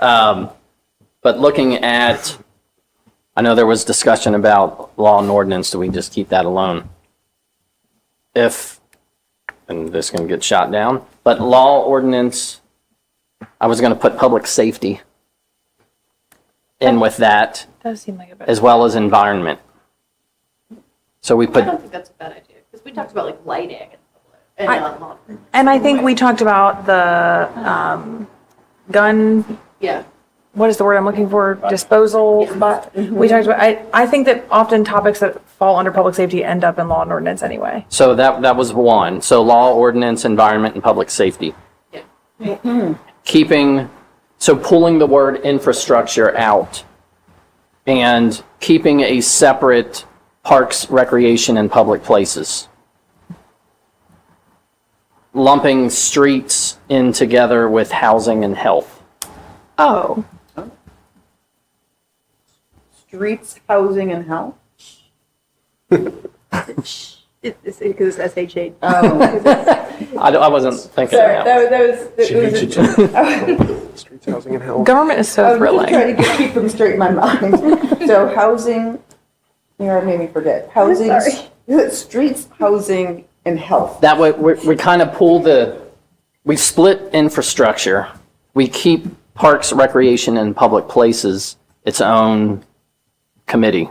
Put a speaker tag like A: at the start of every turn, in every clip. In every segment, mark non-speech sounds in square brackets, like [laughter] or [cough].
A: Um, But looking at, I know there was discussion about law and ordinance, do we just keep that alone? If, and this can get shot down, but law, ordinance, I was going to put public safety in with that,
B: Does seem like a bit.
A: as well as environment. So we put
C: I don't think that's a bad idea, because we talked about like lighting and public, and
B: I-
C: uh, monitoring.
B: And I think we talked about the um, gun,
C: Yeah,
B: what is the word I'm looking for, disposal, but we talked about, I, I think that often topics that fall under public safety end up in law and ordinance anyway.
A: So that, that was one. So law, ordinance, environment, and public safety.
C: yeah.
A: Keeping, so pulling the word infrastructure out and keeping a separate parks, recreation, and public places. Lumping streets in together with housing and health.
B: Oh.
D: Streets, housing, and [laughs] health?
E: It's because it's SHA.
D: [laughs]
A: I, don't- I wasn't thinking of that.
D: was,
F: Oh. She needs you to. [laughs] Streets, housing, and health.
B: Government is
D: I
B: so
D: was just
B: thrilling.
D: trying to get- keep them straight in my mind. So housing, you know, it made me forget. Housing, [laughs] streets, housing, and health.
A: That way, we, we kind of pull the, we split infrastructure. We keep parks, recreation, and public places its own committee.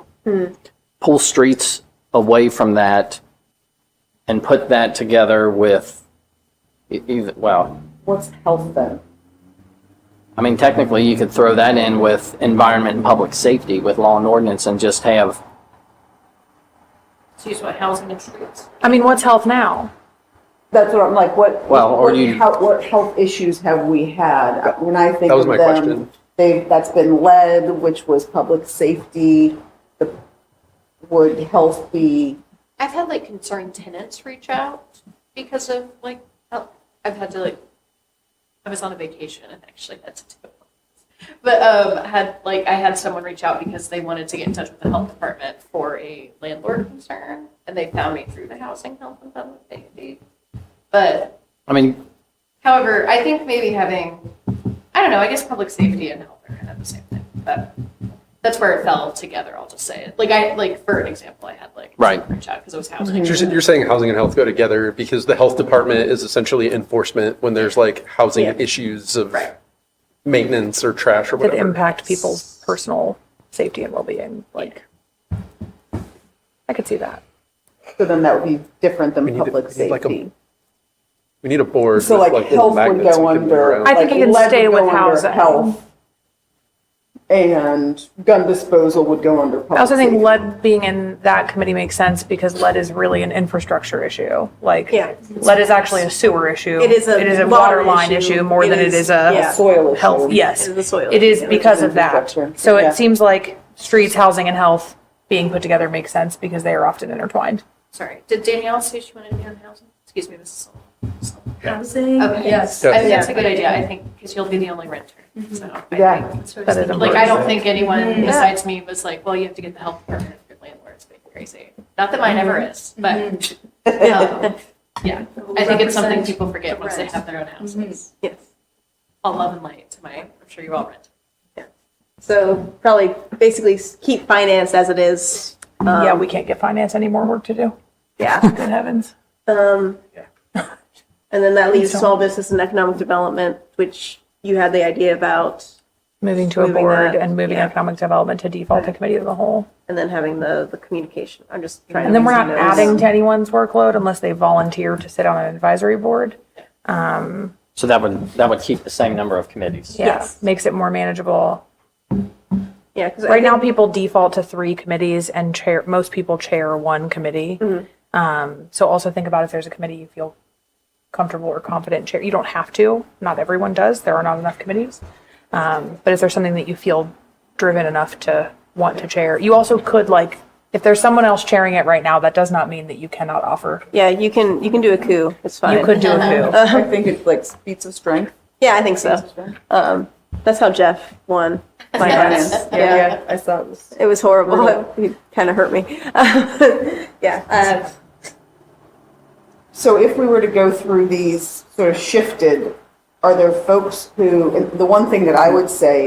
A: Pull streets away from that and put that together with, e- either, well,
D: What's health then?
A: I mean, technically, you could throw that in with environment and public safety, with law and ordinance, and just have
C: So you just want housing and streets.
B: I mean, what's health now?
D: That's what I'm like, what,
A: Well, or
D: what,
A: you-
D: how- what health issues have we had? When I think
F: That was
D: of
F: my
D: them,
F: question.
D: they, that's been lead, which was public safety. The- Would health be,
C: I've had like concerned tenants reach out because of like, oh, I've had to like, I was on a vacation and actually had to do it. But um, had like, I had someone reach out because they wanted to get in touch with the health department for a landlord concern, and they found me through the housing health and public safety. But
A: I mean,
C: however, I think maybe having, I don't know, I guess public safety and health are kind of the same thing, but that's where it fell together. I'll just say it. Like I like for an example, I had like
A: Right.
C: someone reach out because it was housing.
F: You're, s- you're saying housing and health go together because the health department is essentially enforcement when there's like housing
C: Yeah.
F: issues of
C: Right.
F: maintenance or trash or
B: That
F: whatever.
B: impact people's personal safety and well-being, like. I could see that.
D: so then that would be different
F: We
D: than
F: need to-
D: public
F: we need like a-
D: safety.
F: We need a board.
D: So
F: with,
D: like
F: little
D: health would
F: magnets
D: go
F: we can move
D: under.
F: around.
B: I think
D: like,
B: it can
D: lead
B: stay
D: would
B: with
D: go
B: housing.
D: under health, And gun disposal would go under
B: I
D: public
B: also think
D: safety.
B: lead being in that committee makes sense because lead is really an infrastructure issue. Like,
E: Yeah.
B: lead is actually a sewer issue.
E: It is a
B: It is a
E: water
B: water line
E: issue.
B: issue more
E: It
B: than it
E: is-
B: is
E: yeah.
B: a
D: Soil issue.
B: health, yes.
E: It is a soil
B: It is
E: issue.
B: because of that.
D: Infrastructure.
B: So
D: Yeah.
B: it seems like streets, housing, and health being put together makes sense because they are often intertwined.
C: Sorry, did Danielle say she wanted to be on housing? Excuse me, Mrs. Sullivan.
E: Housing.
C: Okay,
E: Yes.
C: I think
E: Yeah.
C: that's a good idea, I think, because you'll be the only renter, so. I
D: Yeah.
C: think-
B: That is
C: Like, I
B: important.
C: don't think anyone besides me was like, well, you have to get the health permit if your landlord's being crazy. Not that mine ever is, but, [laughs] um, yeah, I think it's something people forget once they have their own houses.
E: Yes.
C: All love and light to my, I'm sure you all rent.
E: So probably basically s- keep finance as it is.
B: Yeah,
E: Um,
B: we can't get finance any more work to do.
E: Yeah.
B: Good heavens.
E: Um, And then that leaves
B: So-
E: small business and economic development, which you had the idea about,
B: Moving to a
E: Moving
B: board
E: that,
B: and moving
E: yeah.
B: economic development to default to committee of the whole.
E: and then having the, the communication. I'm just trying to.
B: And then we're not
E: reason those.
B: adding to anyone's workload unless they volunteer to sit on an advisory board.
A: so that would, that would keep the same number of committees.
B: Yeah, makes it more manageable.
E: Yeah, because
B: Right now, people default to three committees and chair, most people chair one committee. Um, so also think about if there's a committee you feel comfortable or confident chair, you don't have to, not everyone does, there are not enough committees. Um, but if there's something that you feel driven enough to want to chair, you also could like, if there's someone else chairing it right now, that does not mean that you cannot offer.
E: Yeah, you can, you can do a coup. It's fine.
B: You could do a coup.
D: I think it's like feats of strength.
E: Yeah, I think so. Um, That's how Jeff won. finance.
D: Yeah, I saw it was.
E: It was horrible. It, kind of hurt me. [laughs] yeah. Uh,
D: So if we were to go through these sort of shifted, are there folks who, and the one thing that I would say